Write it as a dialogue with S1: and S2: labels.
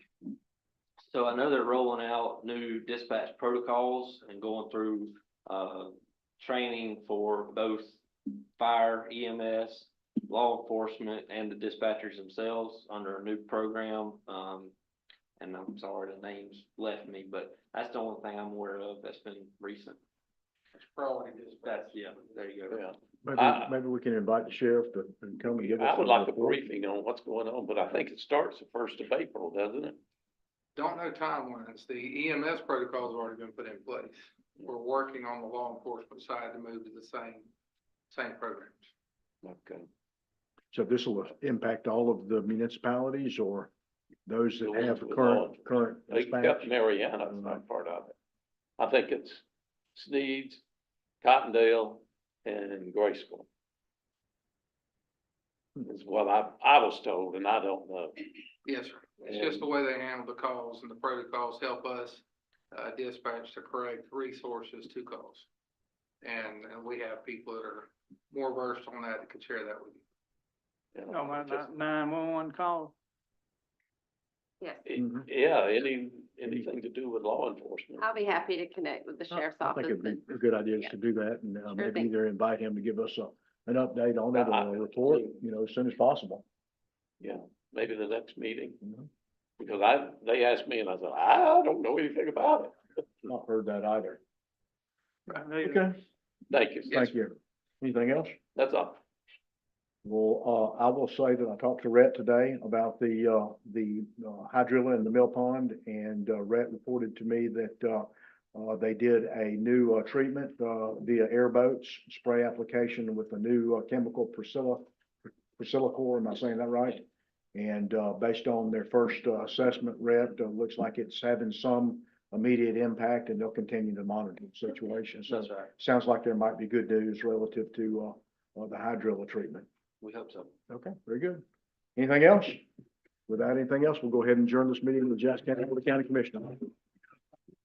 S1: So I know they're rolling out new dispatch protocols and going through, uh, training for both fire, EMS, law enforcement, and the dispatchers themselves under a new program. Um, and I'm sorry, the names left me, but that's the only thing I'm aware of that's been recent.
S2: Priority dispatch.
S1: That's, yeah, there you go.
S3: Yeah,
S4: Maybe,
S3: I-
S4: maybe we can invite the sheriff to and come and give us.
S3: Uh, I would
S4: some
S3: like a
S4: report.
S3: briefing on what's going on, but I think it starts the first of April, doesn't it?
S2: Don't know timelines. The EMS protocol's already been put in place. We're working on the law enforcement side to move to the same, same programs.
S3: Okay.
S4: So this will impact all of the municipalities or those
S3: The
S4: that
S3: ones
S4: have
S3: with
S4: current,
S3: all-
S4: current dispatch?
S3: Except Mariana is
S4: Mm-hmm.
S3: not part of it. I think it's Sneed's, Cottondale, and Graceville.
S4: Hmm.
S3: Is what I, I was told, and I don't know.
S2: Yes, sir. It's just the way they handle the calls and the protocols help us uh, dispatch the correct resources to calls. And, and we have people that are more versed on that that can share that with you.
S3: you know,
S5: Oh, my,
S3: just-
S5: nine-one-one call.
S6: Yes,
S4: Mhm.
S3: Yeah, any, anything to do with law enforcement.
S6: I'll be happy to connect with the sheriff's
S4: I think
S6: office.
S4: it'd be
S6: and-
S4: Oh, a good idea
S6: yeah.
S4: to do that and uh,
S6: Sure
S4: maybe
S6: thing.
S4: either invite him to give us a, an update on it
S3: I-
S4: or a report, you know, as soon as possible.
S3: Maybe the next meeting,
S4: Mhm.
S3: because I, they asked me and I said, I don't know anything about it.
S4: Not heard that either.
S5: Right.
S4: Okay,
S3: Thank you.
S4: thank you. Anything else?
S3: That's all.
S4: Well, uh, I will say that I talked to Rhett today about the, uh, the uh, hydrilla in the mill pond and uh, Rhett reported to me that, uh, uh, they did a new, uh, treatment, uh, via airboats, spray application with a new uh, chemical Priscilla, Priscillacor, am I saying that right? And, uh, based on their first uh, assessment, Rhett, uh, looks like it's having some immediate impact and they'll continue to monitor the situation. So
S1: That's right.
S4: sounds like there might be good news relative to, uh, uh, the hydrilla treatment.
S1: We hope so.
S4: Okay, very good. Anything else? Without anything else, we'll go ahead and adjourn this meeting with the Jackson County Board of County Commissioners.